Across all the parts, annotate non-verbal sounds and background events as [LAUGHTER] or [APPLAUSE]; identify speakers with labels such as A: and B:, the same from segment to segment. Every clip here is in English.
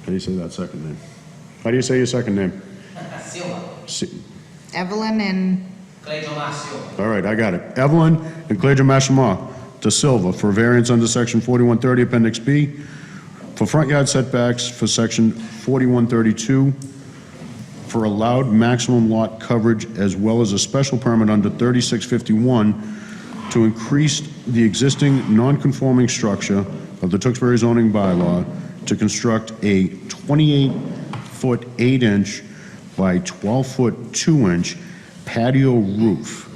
A: How do you say that second name? How do you say your second name?
B: Silva.
A: Si-
C: Evelyn and,
B: Cleidomar Silva.
A: All right, I got it. Evelyn and Claudia Mashama De Silva for variance under section 4130, appendix B, for front yard setbacks for section 4132, for allowed maximum lot coverage, as well as a special permit under 3651 to increase the existing non-conforming structure of the Tewksbury zoning bylaw to construct a 28-foot 8-inch by 12-foot 2-inch patio roof.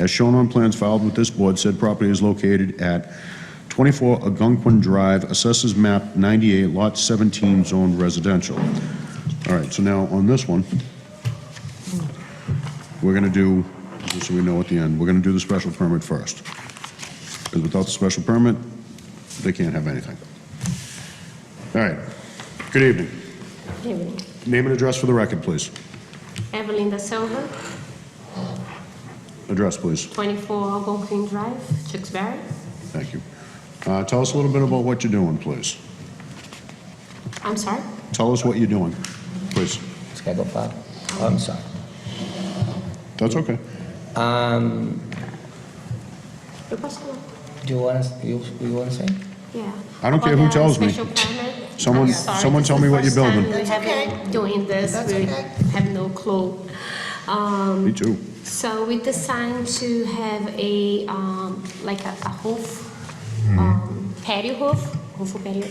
A: As shown on plans filed with this board, said property is located at 24 Algonquin Drive, Assessors Map 98, Lot 17, Zone Residential. All right, so now on this one, we're going to do, just so we know at the end, we're going to do the special permit first. Because without the special permit, they can't have anything. All right, good evening.
D: Evening.
A: Name and address for the record, please.
D: Evelyn da Silva,
A: Address, please.
D: 24 Algonquin Drive, Tewksbury.
A: Thank you. Uh, Tell us a little bit about what you're doing, please.
D: I'm sorry?
A: Tell us what you're doing, please.
E: This guy go far? Oh, I'm sorry.
A: That's okay.
D: Eu posso falar?
E: Um, Do you want to, you, you want to say?
D: Yeah.
A: I don't care
D: About
A: who
D: the
A: tells me.
D: special permit,
A: Someone-
D: I'm sorry,
A: someone
D: this
A: tell
D: is
A: me
D: the
A: what you're
D: first time
A: building.
D: we
C: That's
D: have been
C: okay.
D: Doing this,
C: That's
D: we
C: okay.
D: have no clue. Um,
A: Me too.
D: So we decided to have a, um, like a a roof, um, patio roof, roof or patio,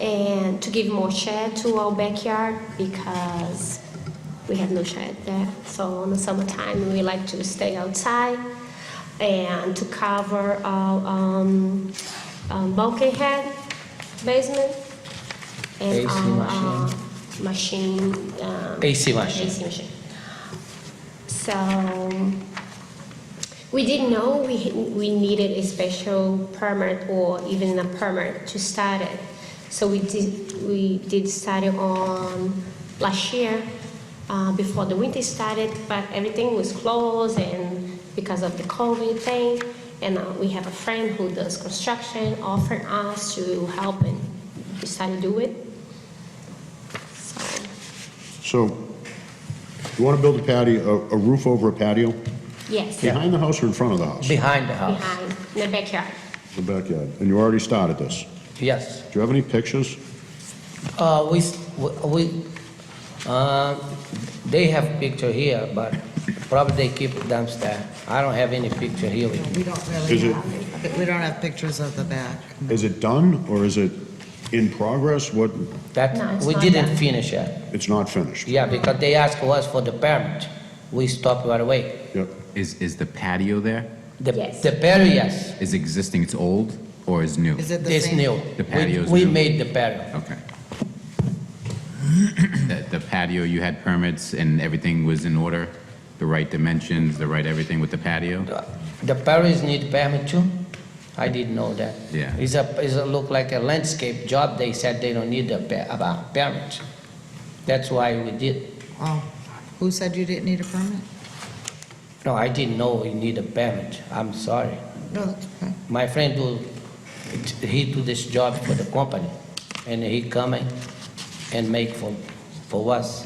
D: and to give more shade to our backyard because we have no shade there. So in the summertime, we like to stay outside and to cover our um, um, bulkhead basement and
E: AC
D: our uh,
E: machine.
D: machine. um,
E: AC machine.
D: AC machine. So we didn't know we, we needed a special permit or even a permit to start it. So we did, we did start it on last year, uh, before the winter started, but everything was closed and because of the COVID thing. And uh, we have a friend who does construction, offered us to help and we started to do it. So,
A: So, you want to build a patio, a a roof over a patio?
D: yes,
A: Behind the house or in front of the house?
E: Behind the house.
D: behind, in the backyard.
A: The backyard. And you already started this.
E: Yes.
A: Do you have any pictures?
E: Uh, we, s- we- we, uh, they have picture here, but probably they keep downstairs. I don't have any picture here with me.
C: we don't
A: Is
C: really
A: it-
C: have, we don't have pictures of the back.
A: Is it done or is it in progress? What,
D: No,
E: That,
D: it's
E: we
D: not
E: didn't
D: done.
E: finish it.
A: it's not finished?
E: Yeah, because they asked us for the permit. We stopped right away.
A: Yep.
F: Is, is the patio there?
E: The,
D: Yes.
E: the patio, yes,
F: Is existing, it's old, or is new?
C: Is it the
E: it's
C: same?
E: new.
F: The
E: We-
F: patio's
E: We
F: new.
E: made the patio.
F: Okay. [CLEARS THROAT] The the patio, you had permits and everything was in order? The right dimensions, the right everything with the patio?
E: The- The parents need permit too? I didn't know that.
F: Yeah.
E: It's a, it's a look like a landscape job, they said they don't need a pa- about permit. That's why we did,
C: Oh, who said you didn't need a permit?
E: no, I didn't know we need a permit, I'm sorry.
C: No, that's okay.
E: My friend do, he do this job for the company, and he come and- and make for, for us.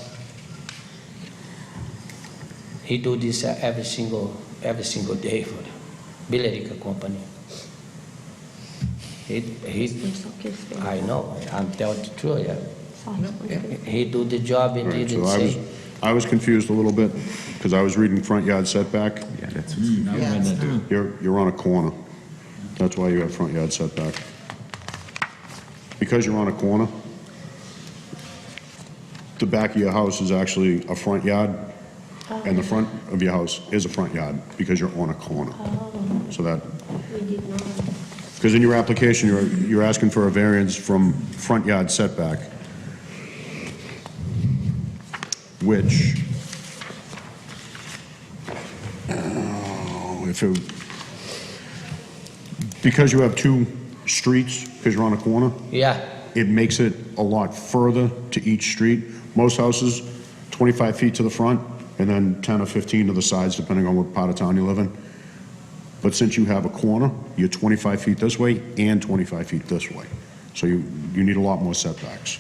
E: He do this uh, every single, every single day for the Billerica company. He, he,
D: It's okay, so-
E: I know, I'm telling the truth, yeah.
D: Sorry.
E: He do the job
A: All
E: and he
A: right, so
E: didn't
A: I was,
E: say.
A: I was confused a little bit because I was reading front yard setback.
F: Yeah, that's,
C: Yeah, it's not.
A: You're, you're on a corner. That's why you have front yard setback. Because you're on a corner, the back of your house is actually a front yard, and the front of your house is a front yard because you're on a corner. So that,
D: We did not.
A: because in your application, you're, you're asking for a variance from front yard setback, which, oh, if it, because you have two streets, because you're on a corner,
E: Yeah,
A: it makes it a lot further to each street. Most houses, 25 feet to the front, and then 10 or 15 to the sides, depending on what part of town you live in. But since you have a corner, you're 25 feet this way and 25 feet this way. So you, you need a lot more setbacks.